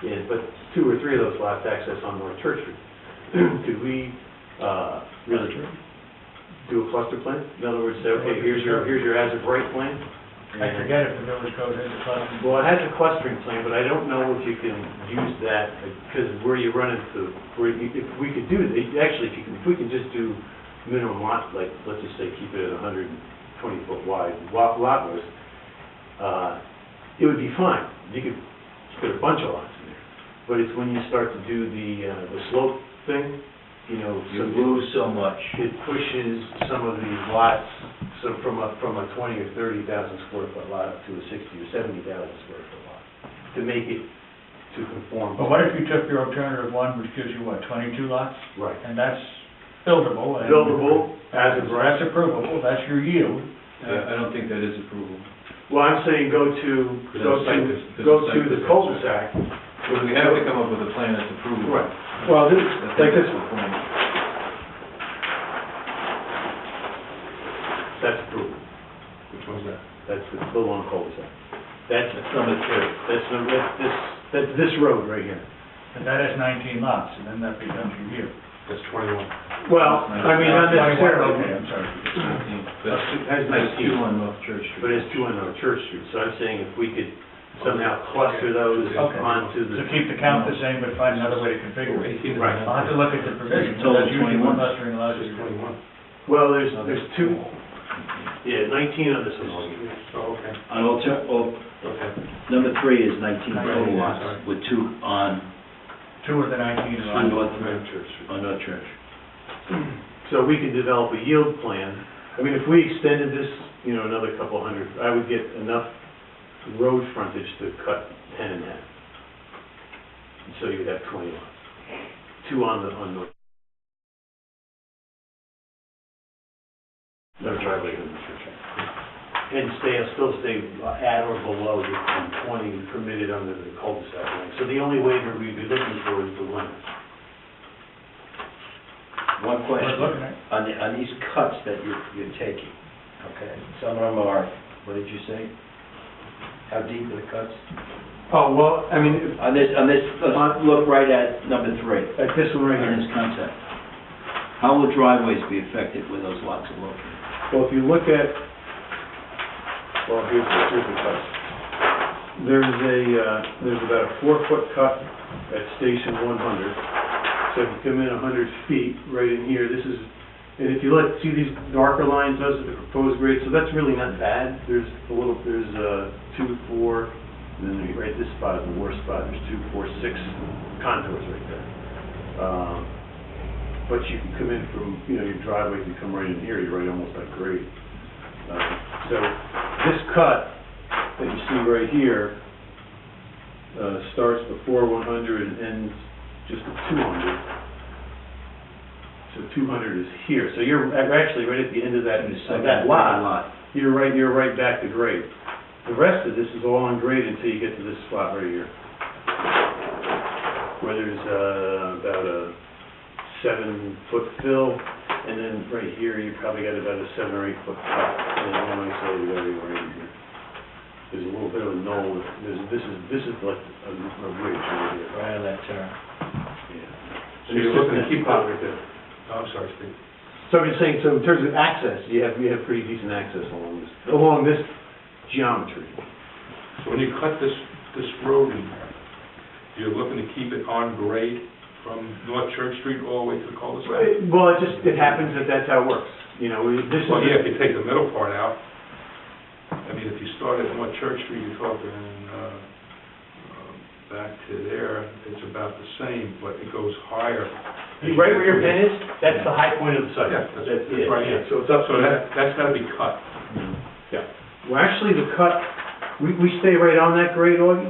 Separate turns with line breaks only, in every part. and put two or three of those lots access on North Church Street. Could we, uh, really do a cluster plan? In other words, say, okay, here's your, here's your as of right plan?
I forget if the village code has a cluster.
Well, it has a clustering plan, but I don't know if you can use that, because where you run into, where you, if we could do, actually, if you can, if we can just do minimum lot, like, let's just say, keep it at hundred and twenty foot wide, lot, lot was, uh, it would be fine, you could put a bunch of lots in there, but it's when you start to do the, uh, the slope thing, you know, so
You lose so much.
it pushes some of these lots, so from a, from a twenty or thirty thousand square foot lot up to a sixty or seventy thousand square foot lot, to make it to conform.
But what if you took your alternative one, which gives you, what, twenty-two lots?
Right.
And that's buildable. and-
Buildable, as of right.
That's approvable, that's your yield.
I I don't think that is approval.
Well, I'm saying go to, go
Because
to,
it's like this-
go
this is
to
like
the
this.
cul-de-sac.
But we have to come up with a plan that's approvable.
Right, well, this,
I think
like this
that's the
one,
point.
that's approved. Which one's that? That's the, the long cul-de-sac. That's,
That's number two.
that's, the- that's this, that's this road right here.
And that has nineteen lots, and then that becomes your yield.
That's twenty-one.
Well, I mean, not
Okay,
necessarily,
I'm sorry.
That's,
That's
that's two
nineteen.
on North Church Street.
but it's two on our Church Street, so I'm saying if we could somehow cluster those
Okay.
onto
So
the
keep the count the same, but find another way to configure it.
Eighteen.
Right.
I'll have to look at the provisions,
Total
that's usually what
21.
clustering allows you to do.
Well, there's, there's two, yeah, 19 on this one.
Oh, okay.
On alter, oh,
Okay.
number three is nineteen
Nineteen,
total
sorry.
lots, with two on,
Two of the nineteen
on
lots.
North,
Church Street.
on North Church.
So we can develop a yield plan. I mean, if we extended this, you know, another couple hundred, I would get enough road frontage to cut 10 in half. And So you'd have 20 lots. Two on the, on the... No driveway in the church. And stay, still stay at or below the 20 permitted under the cul-de-sac line. So the only waiver we'd be looking for is the limit.
One
We're looking
question,
at,
on the, on these cuts that you're, you're taking, okay? Some of them are, what did you say? How deep are the cuts?
Oh, well, I mean,
On this, on this, let's look right at number three,
Like this one right here.
on this concept. How will driveways be affected where those lots are located?
Well, if you look at, well, here's the, here's the cut. There's a, uh, there's about a four-foot cut at station one hundred. So if you come in a hundred feet, right in here, this is, and if you look, see these darker lines, those are the proposed grades, so that's really not bad. There's a little, there's, uh, two, four, and then there- right, this spot is the worst spot, there's two, four, six contours right there. Um, but you can come in from, you know, your driveway can come right in here, you're right almost at grade. Uh, So this cut that you see right here, uh, starts before one hundred and ends just at two hundred. So two hundred is here, so you're a- actually right at the end of that,
In the
of
second
that
lot.
lot, you're right, you're right back to grade. The rest of this is all on grade until you get to this spot right here. Where there's, uh, about a seven foot fill, and then right here, you probably got about a seven or eight foot cut, and then one way side, the other way in here. There's a little bit of a knoll, there's, this is, this is like a, a ridge right here.
Right on that turn.
So you're looking to keep out right there.
Oh,
I'm sorry, Steve.
So I'm just saying, so in terms of access, you have, you have pretty decent access along this, along this geometry.
So when you cut this, this road in there, you're looking to keep it on grade from North Church Street all the way to the cul-de-sac?
Right, Well, it just, it happens that that's how it works, you know, we- this
Well, yeah, if
is,
you take the middle part out, I mean, if you start at North Church Street, you're talking, uh, uh, back to there, it's about the same, but it goes higher.
right where your pin is, that's the high point of the site.
Yeah, that's,
That's
that's
it.
right here.
So it's up
So that, that's gotta be cut.
Well, actually, the cut, we, we stay right on that grade, Augie?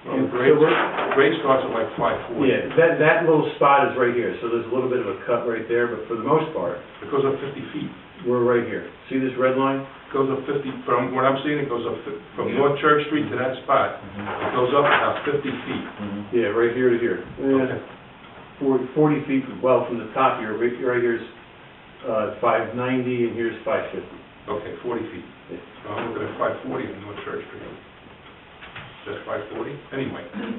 Well,
And so
grade,
we're-
grade starts at like five forty.
Yeah, that, that little spot is right here, so there's a little bit of a cut right there, but for the most part,
It goes up fifty feet.
we're right here. See this red line?
goes up 50, from what I'm seeing, it goes up, fif- from North Church Street to that spot,
Mm-hmm.
it goes up about 50 feet.
Mm-hmm.
Yeah, right here to here. Yeah, forty, forty feet, from- well, from the top here, right, right here's, uh, five ninety, and here's five fifty.
Okay, 40 feet.
Yeah.
So I'm looking at 540 on North Church Street. That's 540? Anyway,